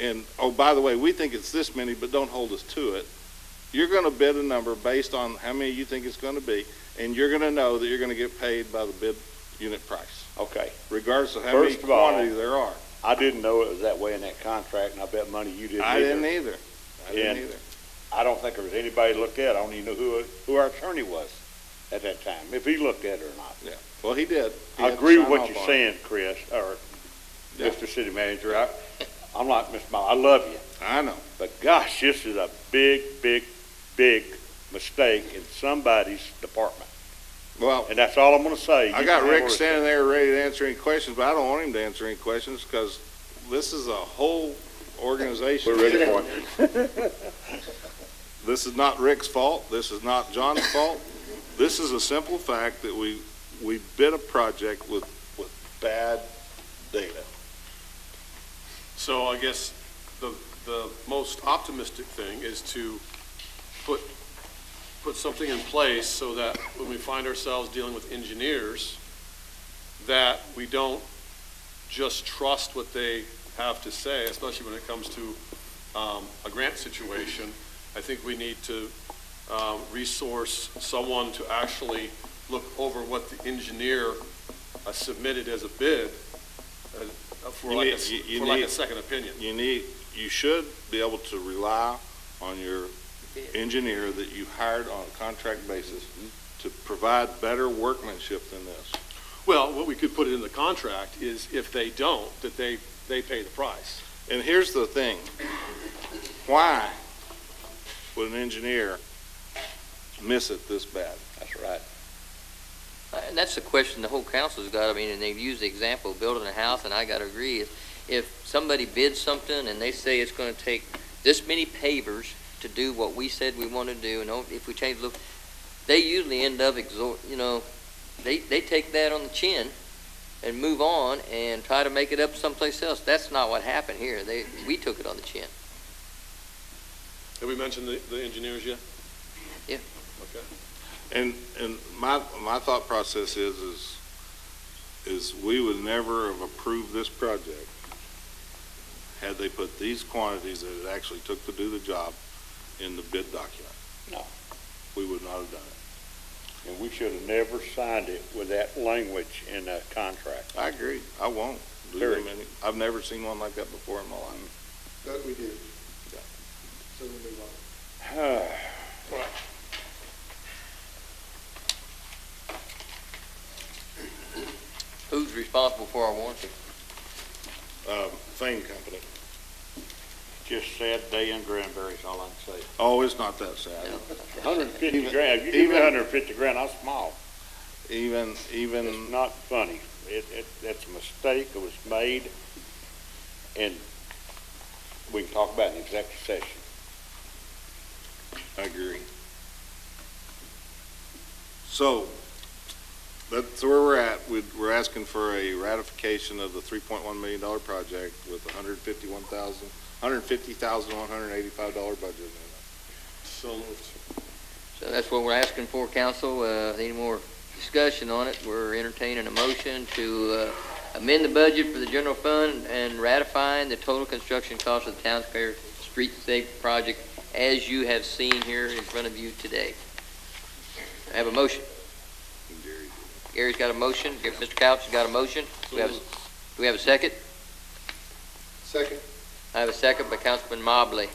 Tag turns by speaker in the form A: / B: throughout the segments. A: and, oh, by the way, we think it's this many, but don't hold us to it. You're going to bid a number based on how many you think it's going to be, and you're going to know that you're going to get paid by the bid unit price,
B: Okay,
A: regardless of how many
B: First of all,
A: quantity there are.
B: I didn't know it was that way in that contract, and I bet money you didn't
A: I didn't
B: either.
A: either. I didn't
B: And-
A: either.
B: I don't think there was anybody looked at, it. I don't even know who, who our attorney was at that time, if he looked at it or not.
A: Well, he did. He
B: I
A: had to
B: agree with
A: sign
B: what
A: off
B: you're
A: on it.
B: saying, Chris, or
A: Yeah.
B: Mr. City Manager. I, I'm like, Miss Mile, I love you,
A: I know.
B: but gosh, this is a big, big, big mistake in somebody's department.
A: Well,
B: And that's all I'm gonna say.
A: I
B: You
A: got
B: can
A: Rick
B: handle it.
A: standing there ready to answer any questions, but I don't want him to answer any questions because this is a whole organization.
B: We're ready for it.
A: This is not Rick's fault. This is not John's fault. This is a simple fact that we, we bid a project with, with bad data.
C: So I guess the, the most optimistic thing is to put, put something in place so that when we find ourselves dealing with engineers, that we don't just trust what they have to say, especially when it comes to um, a grant situation. I think we need to um, resource someone to actually look over what the engineer uh, submitted as a bid uh, for
A: You
C: like a,
A: need- you- you
C: for like a
A: need-
C: second opinion.
A: You need, you should be able to rely on your engineer that you hired on a contract basis to provide better workmanship than this.
C: Well, what we could put in the contract is if they don't, that they, they pay the price.
A: And here's the thing. Why would an engineer miss it this bad?
B: That's right.
D: And that's the question the whole council's got, I mean, and they've used the example of building a house, and I gotta agree, is if somebody bids something and they say it's gonna take this many pavers to do what we said we wanna do, and oh, if we change, look, they usually end up exhort, you know, they, they take that on the chin and move on and try to make it up someplace else. That's not what happened here. They, we took it on the chin.
C: Have we mentioned the, the engineers yet?
D: Yeah.
C: Okay.
A: And, and my, my thought process is, is, is we would never have approved this project had they put these quantities that it actually took to do the job in the bid document.
B: No.
A: We would not have done it.
B: And we should have never signed it with that language in a contract.
A: I agree. I won't do
B: Very.
A: them any, I've never seen one like that before in my life.
E: That we did. So we move on.
D: Who's responsible for our warranty?
A: Um, Fane Company.
B: Just sad day in Granbury's, all I can say.
A: Oh, it's not that sad.
B: Hundred and fifty
A: Even-
B: grand, you give me
A: even-
B: hundred and fifty grand, I'll smile.
A: Even, even.
B: It's not funny. It, it, that's a mistake that was made, and we can talk about it in executive session.
A: I agree. So, that's where we're at. We- We're asking for a ratification of the $3.1 million project with $151,000, $150,185 budget amendment.
C: So moved.
D: So that's what we're asking for, council. Uh, Any more discussion on it? We're entertaining a motion to uh, amend the budget for the general fund and ratifying the total construction cost of the town's fair street safe project as you have seen here in front of you today. I have a motion. Gary's got a motion. Gary- Mr. Couch has got a motion. Do we have, a- do we have a second?
E: Second,
D: I have a second by Councilman Mobley.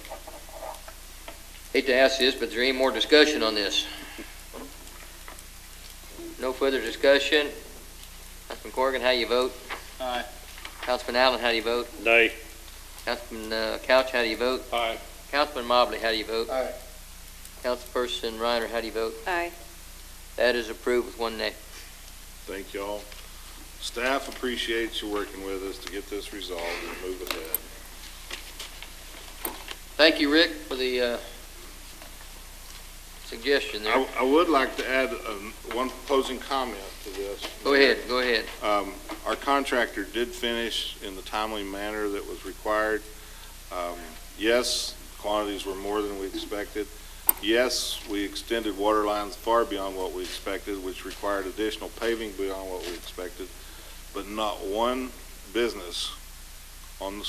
D: Hate to ask this, but is there any more discussion on this? No further discussion. Councilman Corrigan, how do you vote?
C: Aye.
D: Councilman Allen, how do you vote?
B: Nay.
D: Councilman uh, Couch, how do you vote?
C: Aye.
D: Councilman Mobley, how do you vote?
E: Aye.
D: Councilperson Reiner, how do you vote?
F: Aye.
D: That is approved with one nay.
A: Thank y'all. Staff appreciates you working with us to get this resolved and move ahead.
D: Thank you, Rick, for the uh, suggestion there.
A: I I would like to add um, one opposing comment to this.
D: Go ahead, go ahead.
A: Um, Our contractor did finish in the timely manner that was required. Um, Yes, quantities were more than we expected. Yes, we extended water lines far beyond what we expected, which required additional paving beyond what we expected, but not one business on the